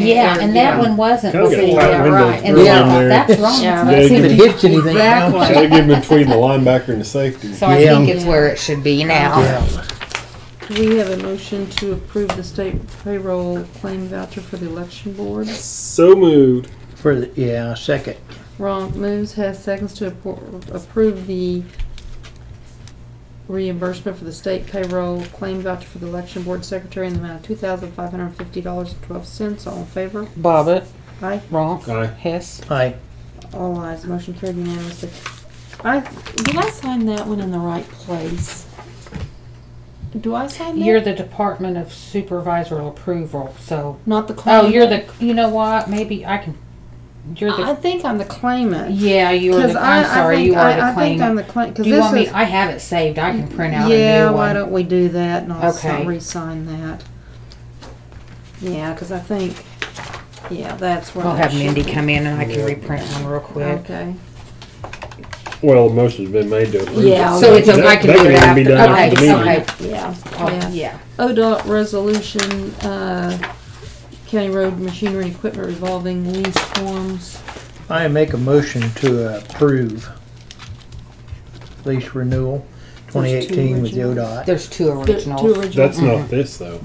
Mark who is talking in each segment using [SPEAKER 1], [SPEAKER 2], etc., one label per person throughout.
[SPEAKER 1] Yeah, and that one wasn't.
[SPEAKER 2] Kinda got
[SPEAKER 1] before,
[SPEAKER 2] tight
[SPEAKER 1] yeah,
[SPEAKER 2] windows
[SPEAKER 1] right. And
[SPEAKER 2] thrown
[SPEAKER 1] that-
[SPEAKER 3] in there.
[SPEAKER 1] That's wrong.
[SPEAKER 4] Yeah.
[SPEAKER 1] That's
[SPEAKER 2] Yeah,
[SPEAKER 3] If it
[SPEAKER 1] even-
[SPEAKER 3] hits anything.
[SPEAKER 1] Exactly.
[SPEAKER 2] Should have given between the linebacker and the safety.
[SPEAKER 1] So I
[SPEAKER 3] Yeah.
[SPEAKER 1] think it's where it should be now.
[SPEAKER 3] Yeah.
[SPEAKER 5] Do we have a motion to approve the state payroll claim voucher for the election board?
[SPEAKER 2] So moved.
[SPEAKER 3] For the, yeah, second.
[SPEAKER 5] Ron moves, has seconds to appro- approve the reimbursement for the state payroll claim voucher for the election board secretary in the amount of two thousand five hundred and fifty dollars and twelve cents. All in favor?
[SPEAKER 4] Bobbit,
[SPEAKER 5] Aye.
[SPEAKER 4] Ronk,
[SPEAKER 2] Aye.
[SPEAKER 4] Hess.
[SPEAKER 3] Aye.
[SPEAKER 5] All ayes. Motion carried unanimously. I, did I sign that one in the right place? Do I sign that?
[SPEAKER 4] You're the Department of Supervisor Approval, so.
[SPEAKER 5] Not the claim.
[SPEAKER 4] Oh, you're the, you know what, maybe I can, you're
[SPEAKER 5] I
[SPEAKER 4] the,
[SPEAKER 5] think I'm the claimant.
[SPEAKER 4] yeah, you're
[SPEAKER 5] Because
[SPEAKER 4] the,
[SPEAKER 5] I,
[SPEAKER 4] I'm
[SPEAKER 5] I
[SPEAKER 4] sorry,
[SPEAKER 5] think,
[SPEAKER 4] you are
[SPEAKER 5] I, I
[SPEAKER 4] the
[SPEAKER 5] think I'm
[SPEAKER 4] claimant.
[SPEAKER 5] the claim, because
[SPEAKER 4] Do you want me,
[SPEAKER 5] this is.
[SPEAKER 4] I have it saved, I can print out a
[SPEAKER 5] Yeah,
[SPEAKER 4] new
[SPEAKER 5] why
[SPEAKER 4] one.
[SPEAKER 5] don't we do that and I'll
[SPEAKER 4] Okay.
[SPEAKER 5] sign, re-sign that. Yeah, because I think, yeah, that's where.
[SPEAKER 4] We'll
[SPEAKER 5] that
[SPEAKER 4] have
[SPEAKER 5] should
[SPEAKER 4] Mindy
[SPEAKER 5] be.
[SPEAKER 4] come in and I can reprint one real quick.
[SPEAKER 5] Okay.
[SPEAKER 2] Well, the motion's been made to approve.
[SPEAKER 5] Yeah,
[SPEAKER 2] it.
[SPEAKER 5] So
[SPEAKER 4] it's a-
[SPEAKER 2] That-
[SPEAKER 4] I can
[SPEAKER 2] that
[SPEAKER 4] do it
[SPEAKER 2] even be
[SPEAKER 4] after.
[SPEAKER 2] done
[SPEAKER 4] Okay,
[SPEAKER 2] after the meeting.
[SPEAKER 4] okay.
[SPEAKER 5] Yeah,
[SPEAKER 4] Oh,
[SPEAKER 5] yeah.
[SPEAKER 4] yeah.
[SPEAKER 5] ODOT resolution, uh, county road machinery and equipment revolving lease forms.
[SPEAKER 3] I make a motion to approve lease renewal twenty eighteen with the
[SPEAKER 5] originals.
[SPEAKER 3] ODOT.
[SPEAKER 4] There's two
[SPEAKER 5] Two
[SPEAKER 4] originals.
[SPEAKER 5] original.
[SPEAKER 2] That's not this though.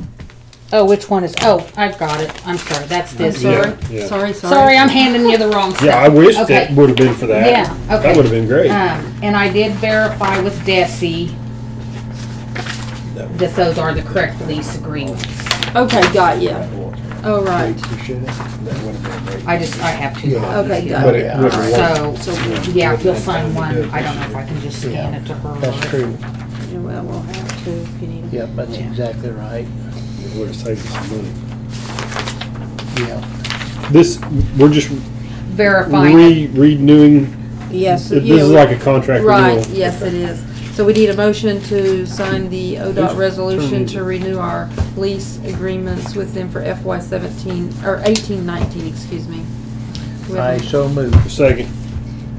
[SPEAKER 4] Oh, which one is, oh, I've got it, I'm sorry, that's this.
[SPEAKER 2] Yeah.
[SPEAKER 5] Sorry, sorry, sorry.
[SPEAKER 4] Sorry, I'm handing you the wrong stuff.
[SPEAKER 2] Yeah, I wished
[SPEAKER 4] Okay.
[SPEAKER 2] it would have been for that.
[SPEAKER 4] Yeah, okay.
[SPEAKER 2] That would have been great.
[SPEAKER 4] Um, and I did verify with Desi that those are the correct lease agreements.
[SPEAKER 5] Okay, got you. Oh, right.
[SPEAKER 4] I just, I have two
[SPEAKER 3] Yeah.
[SPEAKER 4] copies
[SPEAKER 5] Okay,
[SPEAKER 4] here.
[SPEAKER 5] got
[SPEAKER 2] But
[SPEAKER 5] it.
[SPEAKER 2] it would have worked.
[SPEAKER 4] So,
[SPEAKER 5] So, we'll-
[SPEAKER 4] yeah, if you'll sign one, I don't know if I can just scan it to her.
[SPEAKER 3] That's true.
[SPEAKER 5] yeah, well, we'll have to if you need.
[SPEAKER 3] Yep, that's
[SPEAKER 4] Yeah.
[SPEAKER 3] exactly right.
[SPEAKER 2] It would have saved us some money.
[SPEAKER 3] Yeah.
[SPEAKER 2] This, we're just
[SPEAKER 4] Verifying.
[SPEAKER 2] re, renewing,
[SPEAKER 5] Yes.
[SPEAKER 2] this is like a contract renewal.
[SPEAKER 5] Right, yes, it is. So we need a motion to sign the ODOT resolution to renew our lease agreements with them for FY seventeen, or eighteen nineteen, excuse me. We
[SPEAKER 3] I
[SPEAKER 5] have
[SPEAKER 3] so move.
[SPEAKER 2] Second.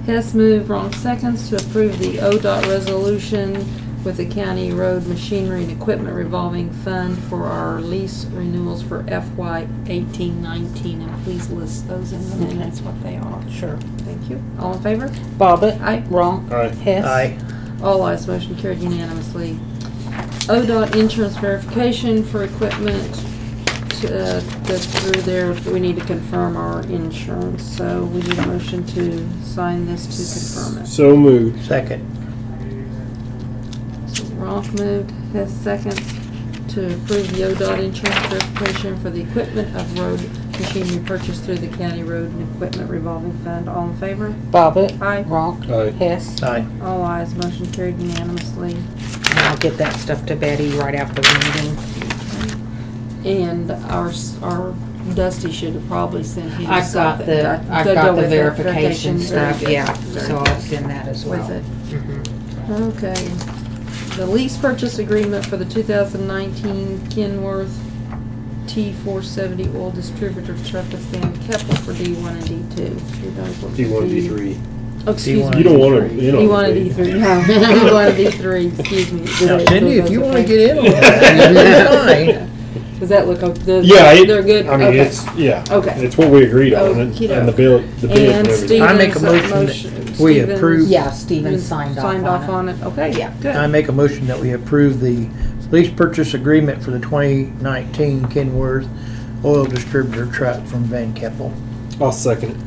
[SPEAKER 5] Hess moved, Wrong seconds, to approve the ODOT resolution with the county road machinery and equipment revolving fund for our lease renewals for FY eighteen nineteen. And please list those in the minutes, what they are.
[SPEAKER 4] Sure.
[SPEAKER 5] Thank you. All in favor?
[SPEAKER 4] Bobbit,
[SPEAKER 5] Aye.
[SPEAKER 4] Ronk,
[SPEAKER 2] Aye.
[SPEAKER 4] Hess.
[SPEAKER 3] Aye.
[SPEAKER 5] All eyes motion carried unanimously. ODOT insurance verification for equipment to, uh, that's through there, we need to confirm our insurance, so we need a motion to sign this to confirm it.
[SPEAKER 2] So moved.
[SPEAKER 3] Second.
[SPEAKER 5] So Ronk moved, Hess second, to approve the ODOT insurance verification for the equipment of road machinery purchased through the county road and equipment revolving fund. All in favor?
[SPEAKER 4] Bobbit,
[SPEAKER 5] Aye.
[SPEAKER 4] Ronk,
[SPEAKER 2] Aye.
[SPEAKER 4] Hess.
[SPEAKER 3] Aye.
[SPEAKER 5] All eyes motion carried unanimously.
[SPEAKER 4] And I'll get that stuff to Betty right after the meeting.
[SPEAKER 5] And our, s- our Dusty should have probably sent him
[SPEAKER 4] I've got
[SPEAKER 5] something.
[SPEAKER 4] the,
[SPEAKER 5] to-
[SPEAKER 4] I've
[SPEAKER 5] to go
[SPEAKER 4] got the
[SPEAKER 5] with it.
[SPEAKER 4] verification
[SPEAKER 5] very
[SPEAKER 4] stuff,
[SPEAKER 5] good,
[SPEAKER 4] yeah,
[SPEAKER 5] very
[SPEAKER 4] so Mm-hmm.
[SPEAKER 5] good
[SPEAKER 4] I'll send that as well.
[SPEAKER 5] With it.
[SPEAKER 4] Mhm.
[SPEAKER 5] Okay. The lease purchase agreement for the two thousand nineteen Kenworth T four seventy oil distributor truck with Van Keppel for D one and D two.
[SPEAKER 2] D one, D three.
[SPEAKER 5] Excuse
[SPEAKER 3] D1.
[SPEAKER 5] me.
[SPEAKER 2] You don't want to, you
[SPEAKER 5] D
[SPEAKER 2] don't
[SPEAKER 5] one
[SPEAKER 2] want
[SPEAKER 5] and
[SPEAKER 2] to
[SPEAKER 5] D
[SPEAKER 2] be.
[SPEAKER 5] three, no, D one and D three, excuse me.
[SPEAKER 3] Now Cindy, if you wanna get in on
[SPEAKER 5] Okay.
[SPEAKER 3] that,
[SPEAKER 5] Does that look, o- does,
[SPEAKER 2] Yeah, it-
[SPEAKER 5] they're good?
[SPEAKER 2] I mean,
[SPEAKER 5] Okay.
[SPEAKER 2] it's, yeah.
[SPEAKER 5] Okay.
[SPEAKER 2] It's what we agreed on and
[SPEAKER 5] Okey-doke.
[SPEAKER 2] and the bill, the bid
[SPEAKER 5] And
[SPEAKER 2] and everything.
[SPEAKER 5] Stevens.
[SPEAKER 3] I make a motion that we
[SPEAKER 5] Stevens-
[SPEAKER 3] approve- Uh,
[SPEAKER 4] Yeah, Steven signed off on it.
[SPEAKER 5] on it. Okay, yeah,
[SPEAKER 3] I, I
[SPEAKER 5] good.
[SPEAKER 3] make a motion that we approve the lease purchase agreement for the twenty nineteen Kenworth oil distributor truck from Van Keppel.
[SPEAKER 2] I'll second it.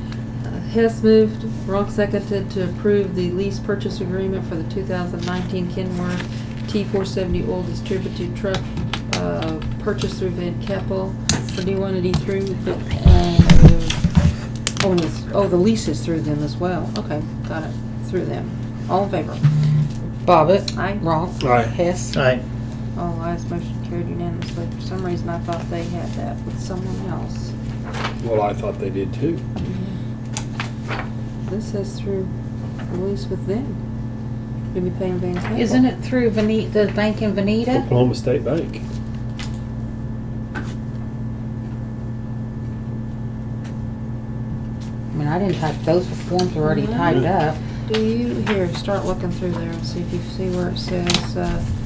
[SPEAKER 5] Hess moved, Ronk seconded to approve the lease purchase agreement for the 2019 Kenworth T470 oil distributed truck uh, purchased through Van Keppel for D1 and D3. but, uh, Oh, and it's- oh, the lease is through them as well. Okay, got it, through them. All in favor?
[SPEAKER 4] Bobbit,
[SPEAKER 5] Aye.
[SPEAKER 4] Ronk,
[SPEAKER 2] Aye.
[SPEAKER 4] Hess.
[SPEAKER 3] Aye.
[SPEAKER 5] All ayes, motion carried unanimously. For some reason, I thought they had that with someone else.
[SPEAKER 2] Well, I thought they did too.
[SPEAKER 5] This says through the lease with them. You'll be paying Van Cable.
[SPEAKER 4] Isn't it through Vene, the bank in Veneta?
[SPEAKER 2] Oklahoma State Bank.
[SPEAKER 4] I mean, I didn't type, those forms are
[SPEAKER 5] Mm-hmm.
[SPEAKER 4] already typed up.
[SPEAKER 5] Do you, here, start looking through there and see if you see where it says, uh,